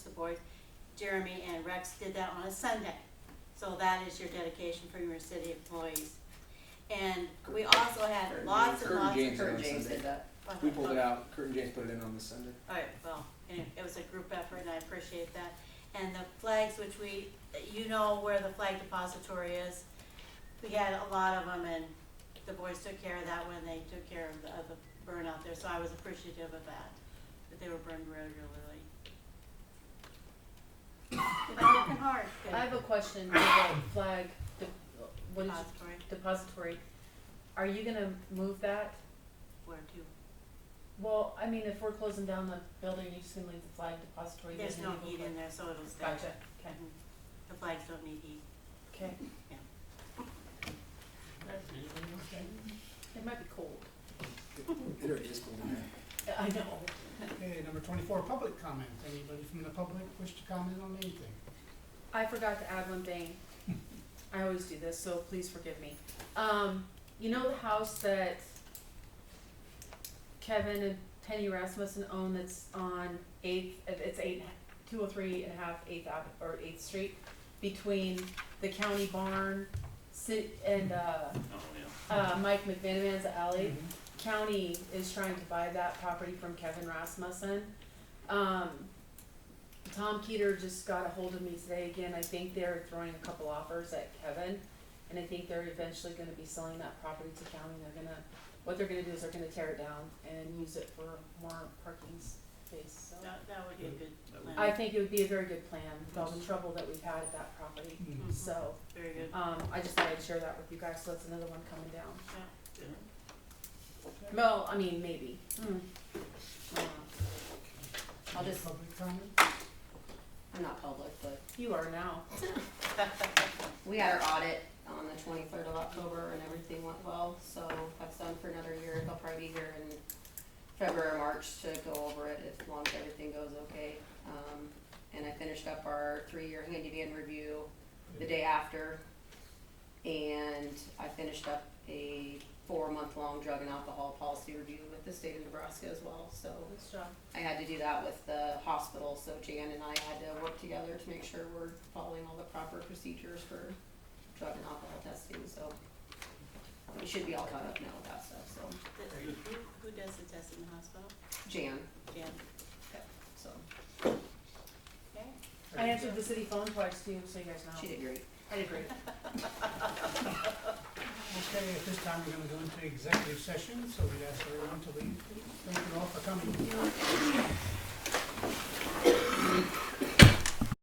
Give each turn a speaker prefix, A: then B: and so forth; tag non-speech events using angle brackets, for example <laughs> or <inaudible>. A: board, Jeremy and Rex did that on a Sunday. So that is your dedication from your city employees. And we also had lots and
B: Kurt
A: lots of.
B: James.
C: Kurt James did that.
B: We pulled it out, Kurt and James put it in on the Sunday.
A: All right, well, anyway, it was a group effort and I appreciate that. And the flags, which we, you know where the flag depository is. We had a lot of them and the boys took care of that when they took care of the, of the burn out there, so I was appreciative of that, that they were burned regularly. They've been working hard, good
D: I have a question about flag, de- what is it,
A: depository,
D: depository? Are you gonna move that?
A: where to,
D: Well, I mean, if we're closing down the building, you just gonna leave the flag depository?
A: there's
D: there
A: no
D: and leave
A: heat
D: the
A: in there, so it'll stay.
D: flag- Gotcha, okay,
A: Mhm. The flags don't need heat.
D: okay. It might be cold.
B: It already is cold in there.
D: I know.
E: Okay, number twenty-four, public comments. Anybody from the public wish to comment on anything?
D: I forgot to add one thing. I always do this, so please forgive me. Um, you know the house that Kevin and Penny Rasmussen own that's on Eighth, uh, it's eight, two oh three and a half Eighth Ave, or Eighth Street, between the county barn, ci- and, uh, uh, Mike McVanaman's alley.
E: Mm-hmm.
D: County is trying to buy that property from Kevin Rasmussen. Um, Tom Keeter just got a hold of me today again, I think they're throwing a couple offers at Kevin, and I think they're eventually gonna be selling that property to county, they're gonna, what they're gonna do is they're gonna tear it down and use it for more parking space, so.
A: That, that would be a good
F: That would-
A: plan.
D: I think it would be a very good plan, with all the trouble that we've had at that property,
A: Mhm.
D: so,
A: Very good,
D: um, I just thought I'd share that with you guys, so that's another one coming down.
A: yeah.
D: Well, I mean, maybe. Hmm. Uh, I'll
E: Any
D: just-
E: Public comment?
C: I'm not public, but
D: You are now.
A: <laughs>
C: we had our audit on the twenty-third of October and everything went well, so that's done for another year. They'll probably be here in February, or March to go over it as long as everything goes okay. Um, and I finished up our three-year handyman review the day after. And I finished up a four-month-long drug and alcohol policy review with the state of Nebraska as well, so
D: Nice job.
C: I had to do that with the hospital, so Jan and I had to work together to make sure we're following all the proper procedures for drug and alcohol testing, so we should be all caught up now with that stuff, so
A: The- Who, who does the test in the hospital?
C: Jan,
A: Jan?
C: so
A: Okay.
D: I answered the city phone twice too, so you guys know.
C: she did great.
D: I did great.
E: Okay, at this time, we're gonna go into executive session, so we'd ask everyone to leave. Thank you all for coming.